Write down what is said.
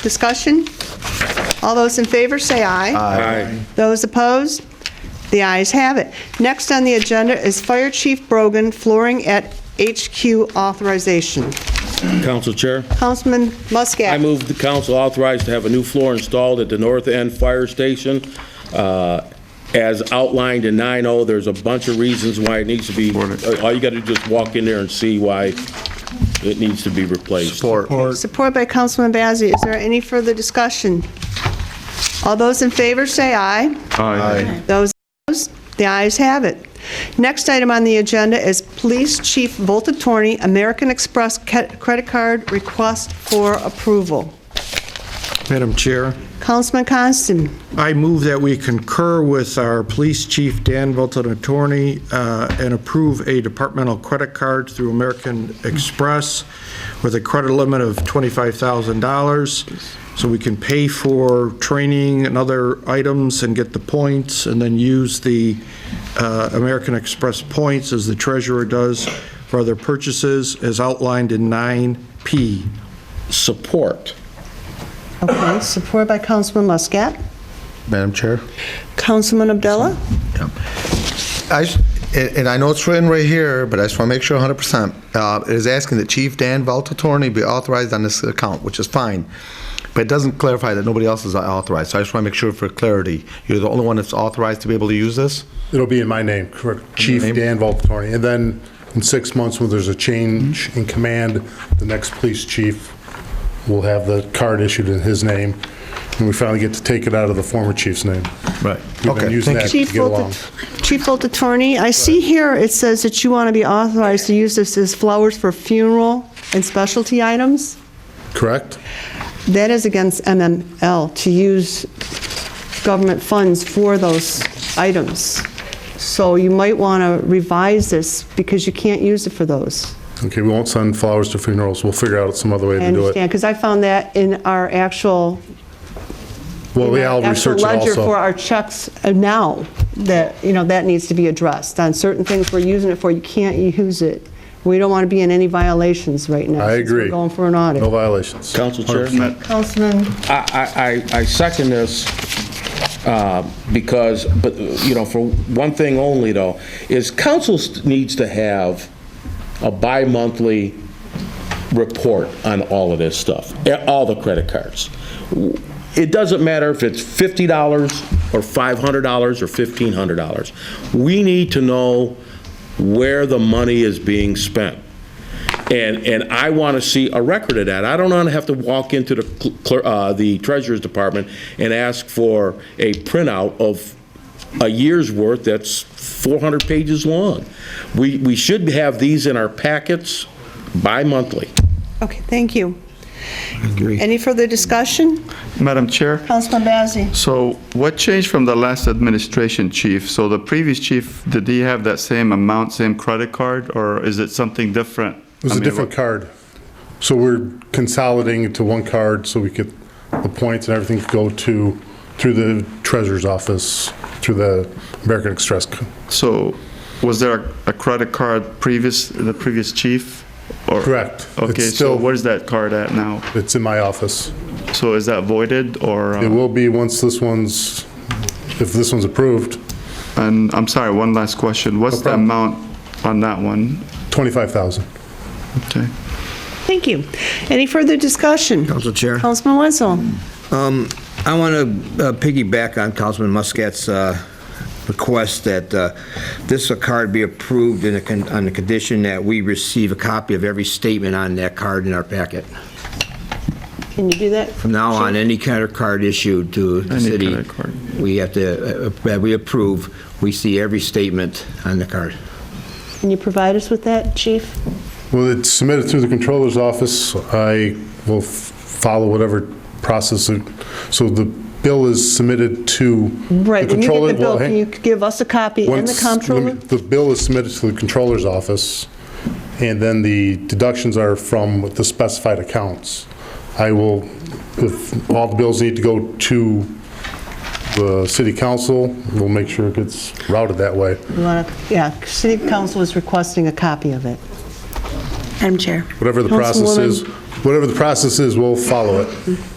Discussion? All those in favor, say aye. Aye. Those opposed? The ayes have it. Next on the agenda is Fire Chief Brogan flooring at HQ authorization. Council Chair, Councilman I Muscat. move the council authorized to have a new floor installed at the North End Fire Station. uh, As outlined in 9-0, there's a bunch of reasons why it needs to be, all you got to do is walk in there and see why it needs to be replaced. Support. Support by Councilman Bazey. Is there any further discussion? All those in favor, say aye. Aye. Those opposed? The ayes have it. Next item on the agenda is Police Chief Volta Torney, American Express ca- Credit Card Request for Approval. Madam Chair, Councilman Coniston. I move that we concur with our Police Chief Dan Volton Attorney uh, and approve a departmental credit card through American Express with a credit limit of $25,000, so we can pay for training and other items and get the points, and then use the uh, American Express points, as the treasurer does, for other purchases, as outlined in 9P. Support. Okay, support by Councilman Muscat. Madam Chair? Councilman Abdullah? I s- And and I know it's written right here, but I just want to make sure 100%. Uh, It is asking that Chief Dan Valtortoni be authorized on this account, which is fine, but it doesn't clarify that nobody else is authorized. So I just want to make sure for clarity, you're the only one that's authorized to be able to use this? It'll be in my name, correct, Chief name? Dan Valtorni. And then in six months, when there's a change Mm-hmm. in command, the next police chief will have the card issued in his name, and we finally get to take it out of the former chief's name. Right. We've been Okay, using thank that you. Chief to get along. Volta- Chief Volta Torney, I see here it says that you want to be authorized to use this as flowers for funeral and specialty items. Correct? That is against MML, to use government funds for those items. So you might want to revise this because you can't use it for those. Okay, we won't send flowers to funerals. We'll figure out some other way I to do it. understand, because I found that in our actual Well, yeah, I'll actual research it ledger for also. our checks uh, now, that, you know, that needs to be addressed. On certain things we're using it for, you can't use it. We don't want to be in any violations right now. I since we're agree. going for an No audit. violations. Council Chair? Councilman? I, I, I second this uh, because, but, you know, for one thing only though, is council st- needs to have a bi-monthly report on all of this stuff, eh, all the credit cards. It doesn't matter if it's $50 or $500 or $1,500. We need to know where the money is being spent. And, and I want to see a record of that. I don't want to have to walk into the cl- cler- uh, the treasurer's department and ask for a printout of a year's worth that's 400 pages long. We, we should have these in our packets bi-monthly. Okay, thank you. Any further discussion? Madam Chair, Councilman Bazey? so what changed from the last administration chief? So the previous chief, did he have that same amount, same credit card, or is it something different? It was I a mean, different card. So we're consolidating it to one card so we could, the points and everything could go to, through the treasurer's office, through the American Express. c- So was there a- a credit card previous, the previous chief? or- Correct. Okay, It's so still- where's that card at now? It's in my office. So is that voided or? It uh, will be once this one's, if this one's approved, And I'm sorry, one last question. What's the problem. amount on that one? 25,000. Okay. Thank you. Any further discussion? Council Chair. Councilman Wenzel? Um, I want to piggyback on Councilman Muscat's uh, request that uh, this card be approved in a con- on the condition that we receive a copy of every statement on that card in our packet. Can you do that? From now on, any credit card issued to the Any city, credit card. we have to, uh, that we approve, we see every statement on the card. Can you provide us with that, chief? Well, it's submitted through the controller's office. I will f- follow whatever process. it- So the bill is submitted to the Right, when you get controller. the bill, well, can hang- you give us a copy and the Once comptroller? The bill is submitted to the controller's office, and then the deductions are from the specified accounts. I will, if all the bills need to go to the city council, we'll make sure it gets routed that way. You wanna- Yeah, city council is requesting a copy of it. Madam Chair. Whatever the process Councilwoman. is, whatever the process is, we'll follow it.